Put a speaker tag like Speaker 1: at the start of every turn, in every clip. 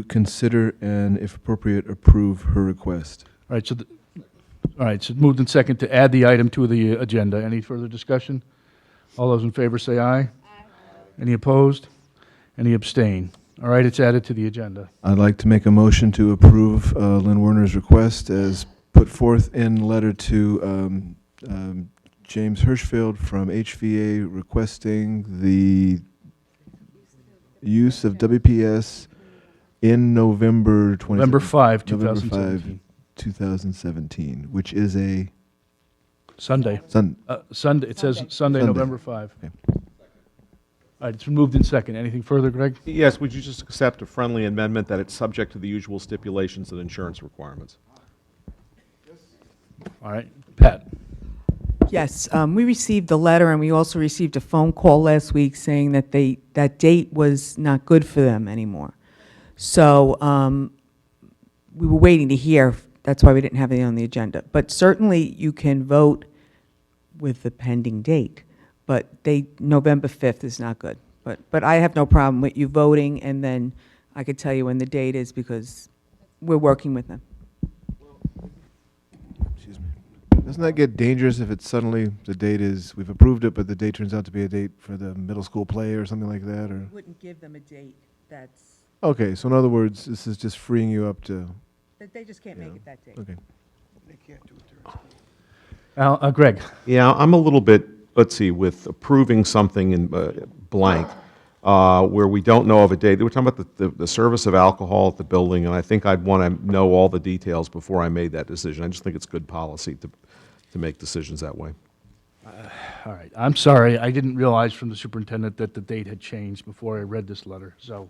Speaker 1: to consider and, if appropriate, approve her request.
Speaker 2: All right, so, the- all right, so moved in second to add the item to the agenda. Any further discussion? All those in favor say aye. Any opposed? Any abstain? All right, it's added to the agenda.
Speaker 1: I'd like to make a motion to approve uh, Lynn Werner's request as put forth in letter to um, um, James Hirschfield from HVA requesting the use of WPS in November
Speaker 2: November
Speaker 1: 20,
Speaker 2: 5,
Speaker 1: November five.
Speaker 2: 2017.
Speaker 1: 2017, which is a
Speaker 2: Sunday.
Speaker 1: Sun,
Speaker 2: Uh, Sunday, it says Sunday,
Speaker 1: Sunday.
Speaker 2: November 5. All
Speaker 1: Okay.
Speaker 2: right, it's been moved in second. Anything further, Greg?
Speaker 3: Yes, would you just accept a friendly amendment that it's subject to the usual stipulations and insurance requirements?
Speaker 2: All right, Pat?
Speaker 4: Yes, um, we received the letter, and we also received a phone call last week saying that they, that date was not good for them anymore. So um, we were waiting to hear, that's why we didn't have it on the agenda. But certainly, you can vote with the pending date, but they, November 5th is not good. But, but I have no problem with you voting, and then I could tell you when the date is, because we're working with them.
Speaker 1: excuse me. Doesn't that get dangerous if it's suddenly, the date is, we've approved it, but the date turns out to be a date for the middle school play or something like that, or?
Speaker 4: Wouldn't give them a date that's,
Speaker 1: Okay, so in other words, this is just freeing you up to,
Speaker 4: that they just can't
Speaker 1: make it
Speaker 4: that date.
Speaker 1: okay.
Speaker 2: Al, uh, Greg?
Speaker 3: Yeah, I'm a little bit, let's see, with approving something in uh, blank, uh, where we don't know of a date. We're talking about the, the- the service of alcohol at the building, and I think I'd want to know all the details before I made that decision. I just think it's good policy to, to make decisions that way.
Speaker 2: All right, I'm sorry, I didn't realize from the superintendent that the date had changed before I read this letter, so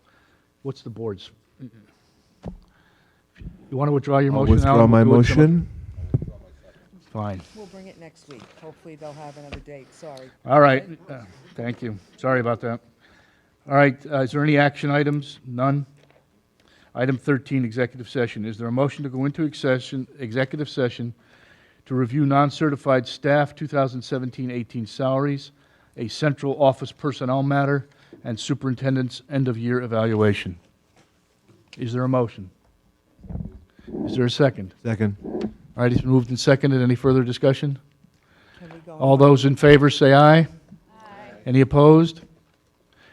Speaker 2: what's the board's? You want to withdraw your
Speaker 1: I'll
Speaker 2: motion,
Speaker 1: withdraw
Speaker 2: Alan? We'll
Speaker 1: my
Speaker 2: do it some-
Speaker 1: motion.
Speaker 2: Fine,
Speaker 4: We'll bring it next week. Hopefully, they'll have another date, sorry.
Speaker 2: all right, Uh, thank you, sorry about that. All right, uh, is there any action items? None? Item 13, executive session, is there a motion to go into accession- executive session to review non-certified staff 2017-18 salaries, a central office personnel matter, and superintendent's end-of-year evaluation. Is there a motion? Is there a second?
Speaker 1: Second.
Speaker 2: All right, it's been moved and seconded. Any further discussion?
Speaker 4: Can we go
Speaker 2: All those in favor say aye. Aye. Any opposed?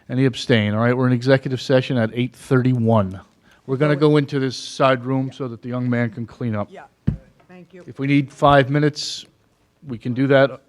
Speaker 2: Any abstain? All right, we're in executive session at 8:31. We're going to go into this side room so that the young man can clean up.
Speaker 4: Yeah, thank you.
Speaker 2: If we need five minutes, we can do that.